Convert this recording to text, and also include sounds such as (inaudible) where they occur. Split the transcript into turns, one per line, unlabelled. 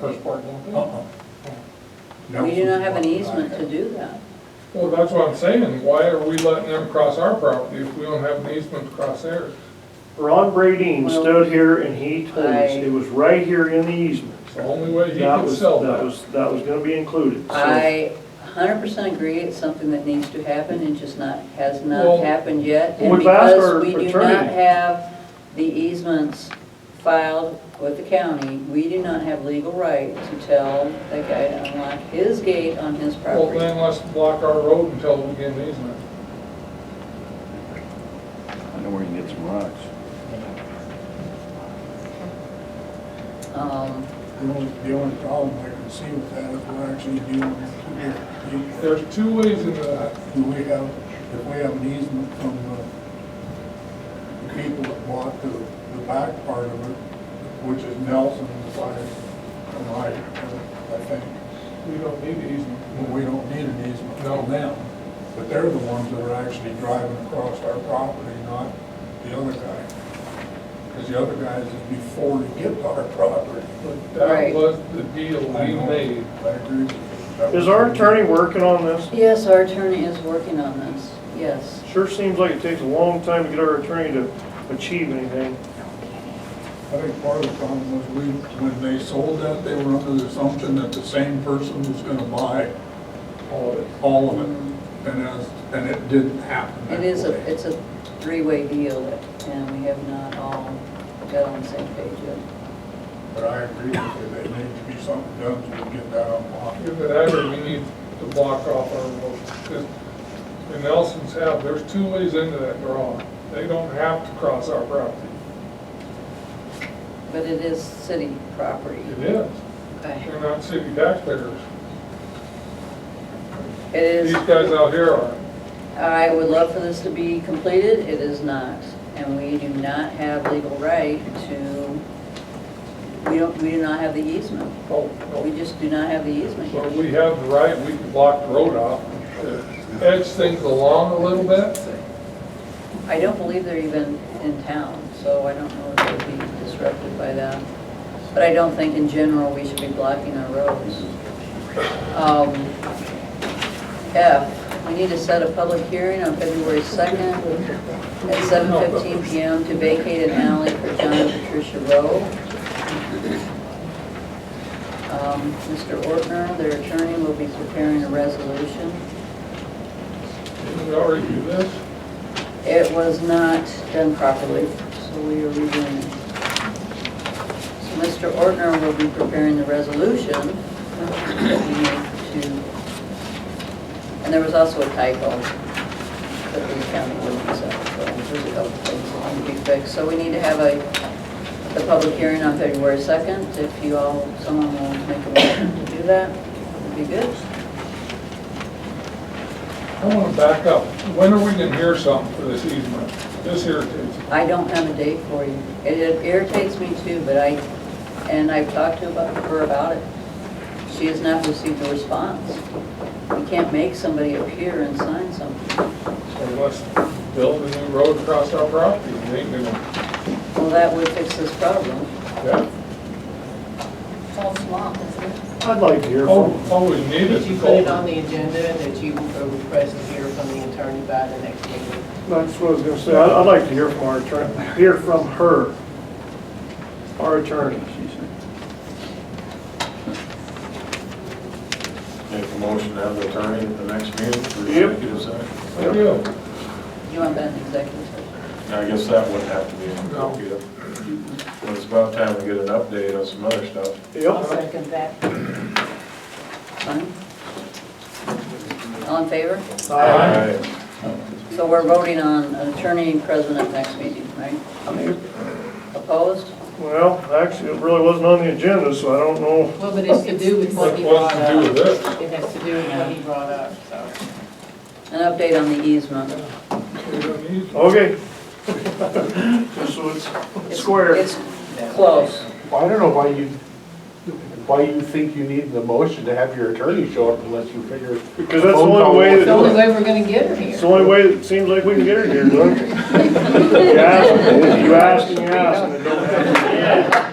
first part down there.
Uh-uh. That
Um, We do
was
not have an
what I
easement
had.
to do that.
Well, that's what I'm saying, why are we letting them cross our property if we don't have an easement to cross theirs?
Ron Bradeen
Well,
stood here and he told us
I-
it was right here in the easement.
It's the only way he
That
can
was,
sell
that
that.
was, that was gonna be included. so-
I hundred percent agree, it's something that needs to happen, it just not, has
Well,
not happened yet. And
we've asked our
because we do not
attorney.
have the easements filed with the county, we do not have legal right to tell the guy to unlock his gate on his
Well,
property.
then let's block our road until we get an easement.
I know where you can get some rocks.
Um,
The only, the only problem I can see with that is we're actually dealing with two different people.
There's two ways into that.
Do we have, if we have an easement from the the people that bought the, the back part of it, which is Nelson's side, and I, I think,
We don't need an
well,
easement.
we don't need an easement
No.
from them. But they're the ones that are actually driving across our property, not the other guy. Because the other guys is before they get to our property.
But that
Right.
was the deal
I
we
know.
made.
I agree with you. That
Is
was-
our attorney working on this?
Yes, our attorney is working on this, yes.
Sure seems like it takes a long time to get our attorney to achieve anything.
I think part of the problem was we, when they sold that, they were under the assumption that the same person was gonna buy
All of it.
all of it. And as, and it didn't happen that
It is a,
way.
it's a three-way deal, and we have not all got on the same page yet.
But I agree with you, there needs to be something done to get that unlocked.
If it ever, we need to block off our road. 'Cause The Nelsons have, there's two ways into that draw. They don't have to cross our property.
But it is city property.
It is.
Okay.
They're not city taxpayers.
It is,
These guys out here are.
I would love for this to be completed, it is not. And we do not have legal right to, we don't, we do not have the easement.
Oh,
We
no.
just do not have the easement.
Well, we have the right, we can block the road off, to edge things along a little bit.
I don't believe they're even in town, so I don't know if they'd be disrupted by that. But I don't think in general we should be blocking our roads. Um, F, we need to set a public hearing on February 2nd at 7:15 PM to vacate an alley for John and Patricia Rowe. Um, Mr. Ortner, their attorney, will be preparing a resolution.
Didn't we already do this?
It was not done properly, so we are redoing it. So Mr. Ortner will be preparing the resolution that we need to, and there was also a typo that the county wouldn't accept, so there's a couple things that need to be fixed. So we need to have a, the public hearing on February 2nd. If you all, someone will make a motion to do that, would be good.
I want to back up. When are we going to hear something for this easement? This irritates me.
I don't have a date for you. It irritates me too, but I, and I've talked to about- her about it. She has not received a response. You can't make somebody appear and sign something.
So let's build a new road across our property. and They can,
Well, that would fix this problem.
yeah.
It's all swamp, isn't it?
I'd like to hear
All,
from him.
all Oh, we need
Did
is
you
a
put it on
culvert.
the agenda and that you will request to hear from the attorney by the next meeting?
That's what I was gonna say, I'd, I'd like to hear from our attorney, hear from her, our attorney.
She said.
Make a motion to have the attorney at the next meeting for
Yep.
executive session.
Thank you.
You want that in executive session?
Now, I guess that would have to be in
No.
executive. But it's about time we get an update on some other stuff.
I'll
Yep.
second that.
Sign? All in favor?
Uh,
Aye.
So we're voting on an attorney and president next meeting, right? Opposed?
Well, actually, it really wasn't on the agenda, so I don't know.
Well, but it's to do with what he
What's
brought
to do with
up.
this?
It has to do with what he brought up, so.
An update on the easement.
We don't need
Okay. (laughs) Just so it's square.
It's close.
Well, I don't know why you, why you think you need the motion to have your attorney show up unless you figure.
Because that's the only way
It's the only
that,
way we're gonna get her
it's
here.
the only way that seems like we can get her here, Doug. You ask, you ask, and you ask, and it don't happen.